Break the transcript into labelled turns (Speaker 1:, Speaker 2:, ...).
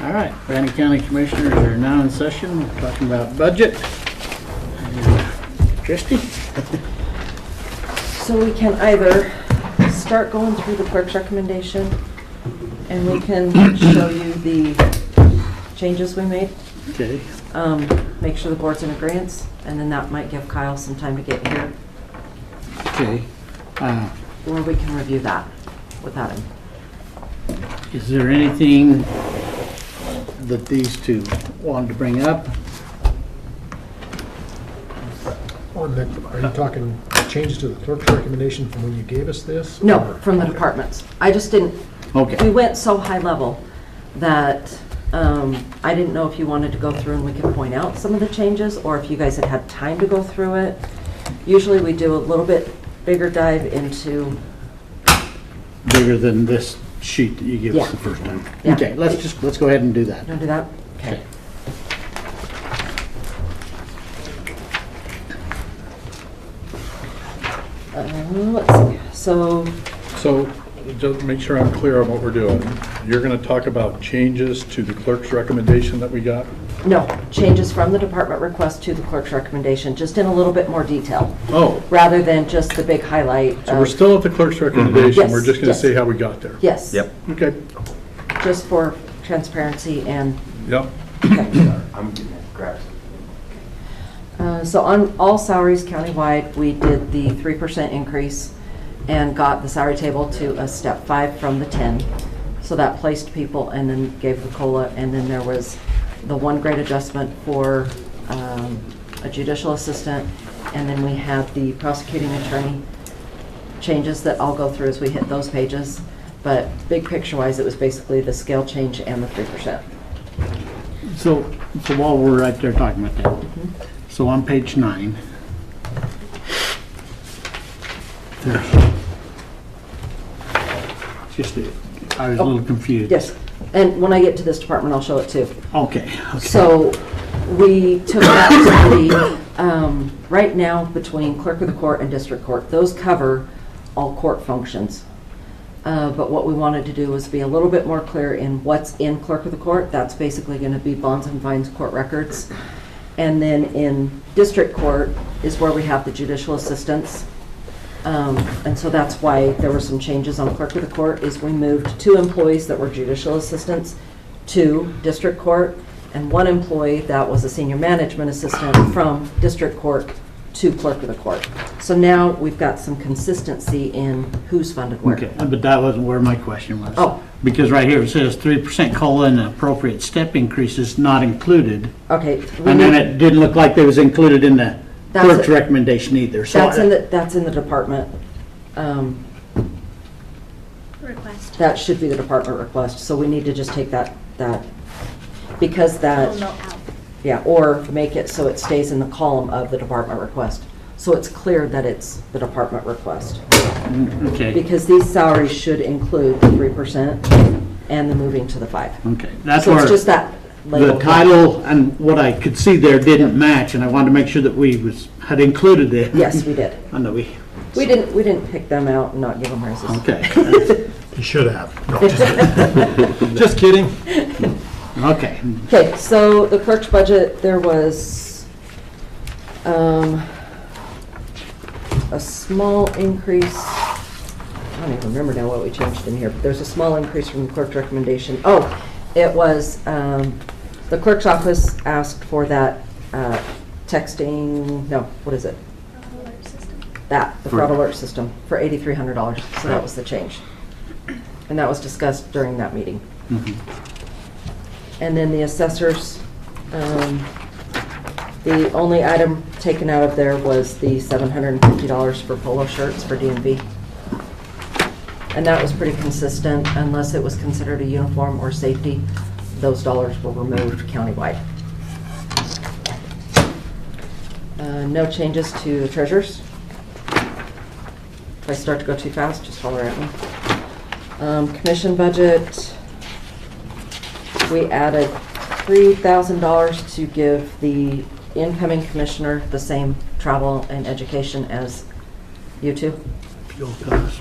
Speaker 1: All right, Brandon County Commissioners are now in session, We're talking about budget. Christie?
Speaker 2: So we can either start going through the clerk's recommendation, and we can show you the changes we made,
Speaker 1: Okay,
Speaker 2: um, make sure the board's in agreeance, and then that might give Kyle some time to get here,
Speaker 1: okay. Uh,
Speaker 2: or we can review that without him.
Speaker 1: Is there anything that these two wanted to bring up?
Speaker 3: On the, are you talking changes to the clerk's recommendation from when you gave us this?
Speaker 2: No,
Speaker 3: or-
Speaker 2: from the departments. I just didn't, we
Speaker 1: Okay,
Speaker 2: went so high level that um, I didn't know if you wanted to go through and we could point out some of the changes, or if you guys had had time to go through it. Usually, we do a little bit bigger dive into,
Speaker 1: bigger than this sheet that you gave us the
Speaker 2: Yeah.
Speaker 1: first time.
Speaker 2: Yeah.
Speaker 1: Okay, let's just, let's go ahead and do that.
Speaker 2: don't do that? Okay. Uh, Let's see, so,
Speaker 4: So, just to make sure I'm clear on what we're doing, you're going to talk about changes to the clerk's recommendation that we got?
Speaker 2: no, changes from the department request to the clerk's recommendation, just in a little bit more detail.
Speaker 4: Oh,
Speaker 2: rather than just the big highlight.
Speaker 4: so we're
Speaker 2: of-
Speaker 4: still at the clerk's recommendation, we're
Speaker 2: Yes,
Speaker 4: just going to
Speaker 2: Mm-hmm. yes.
Speaker 4: say how we got there?
Speaker 2: Yes.
Speaker 5: Yep.
Speaker 4: Okay,
Speaker 2: Just for transparency and,
Speaker 4: yep,
Speaker 2: okay.
Speaker 5: I'm getting it, grab some.
Speaker 2: Uh, So on all salaries countywide, we did the 3% increase and got the salary table to a step five from the 10. So that placed people and then gave the COLA. And then there was the one grade adjustment for um, a judicial assistant. And then we had the prosecuting attorney changes that I'll go through as we hit those pages. But big picture wise, it was basically the scale change and the 3%.
Speaker 1: So, so while we're right there talking about that, so on page nine, there's just, a- I was a little confused.
Speaker 2: Oh, Yes. And when I get to this department, I'll show it too.
Speaker 1: Okay, okay.
Speaker 2: So we took that to the, um, right now, between clerk of the court and district court, those cover all court functions. Uh, But what we wanted to do was be a little bit more clear in what's in clerk of the court. That's basically going to be bonds and fines, court records. And then in district court is where we have the judicial assistants. Um, And so that's why there were some changes on clerk of the court, is we moved two employees that were judicial assistants to district court, and one employee that was a senior management assistant from district court to clerk of the court. So now we've got some consistency in who's funded where.
Speaker 1: Okay, but that wasn't where my question was.
Speaker 2: Oh.
Speaker 1: Because right here it says three percent COLA and appropriate step increases not included.
Speaker 2: Okay. Uh, we
Speaker 1: And then
Speaker 2: need-
Speaker 1: it didn't look like they was included in the
Speaker 2: That's
Speaker 1: clerk's
Speaker 2: it.
Speaker 1: recommendation either, so.
Speaker 2: That's in the, that's in the department. um,
Speaker 6: request.
Speaker 2: That should be the department request, so we need to just take that, that, because that.
Speaker 6: Will melt out.
Speaker 2: Yeah, or make it so it stays in the column of the department request. So it's clear that it's the department request.
Speaker 1: Okay,
Speaker 2: Because these salaries should include the three percent and the moving to the five.
Speaker 1: okay, that's
Speaker 2: So
Speaker 1: where.
Speaker 2: it's just that label.
Speaker 1: The title and what I could see there didn't match, and I wanted to make sure that we was, had included it.
Speaker 2: Yes, we did.
Speaker 1: I know we,
Speaker 2: We didn't, we didn't pick them out and not give them raises.
Speaker 1: okay,
Speaker 3: You should have. No, just- Just kidding.
Speaker 1: okay. Mm-hmm.
Speaker 2: Okay, so the clerk's budget, there was um, a small increase, I don't even remember now what we changed in here, but there's a small increase from the clerk's recommendation. Oh, it was, um, the clerk's office asked for that uh, texting, no, what is it?
Speaker 6: Alert system.
Speaker 2: That, the fraud alert system, for $8,300, so that was the change. And that was discussed during that meeting.
Speaker 1: Mhm.
Speaker 2: And then the assessors, um, the only item taken out of there was the $750 for polo shirts for DMV. And that was pretty consistent, unless it was considered a uniform or safety, those dollars were removed countywide. Uh, No changes to the treasures. If I start to go too fast, just holler at me. Um, Commission budget, we added three thousand dollars to give the incoming commissioner the same travel and education as you two.
Speaker 1: Fuel cost.